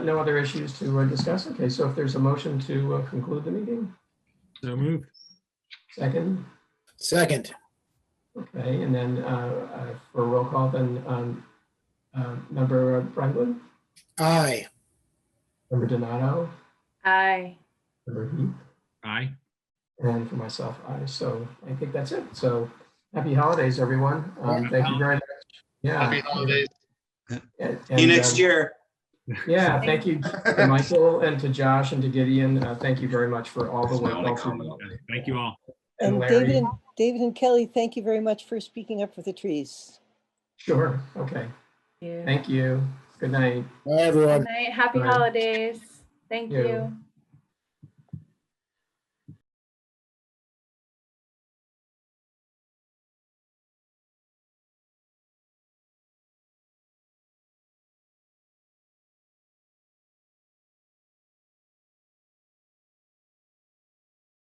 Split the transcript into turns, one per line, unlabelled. No other issues to uh, discuss? Okay, so if there's a motion to uh, conclude the meeting,
So moved.
second,
Second,
okay, and then uh, uh, for roll call, then um, uh, member Franklin,
aye.
member Donato,
Aye.
member Heath,
Aye.
and for myself, I. So I think that's it. So happy holidays, everyone. Um, Thank you very much. Yeah.
Happy holidays.
And-
See you
and,
next
um,
year.
Yeah, thank you to Michael and to Josh and to Gideon. Uh, Thank you very much for all the work. also.
Thank you all.
And
And David,
Larry.
and David and Kelly, thank you very much for speaking up for the trees.
Sure, okay.
Yeah.
Thank you. Good night.
Bye, everyone.
Good night. Happy
Bye.
holidays. Thank
You.
you.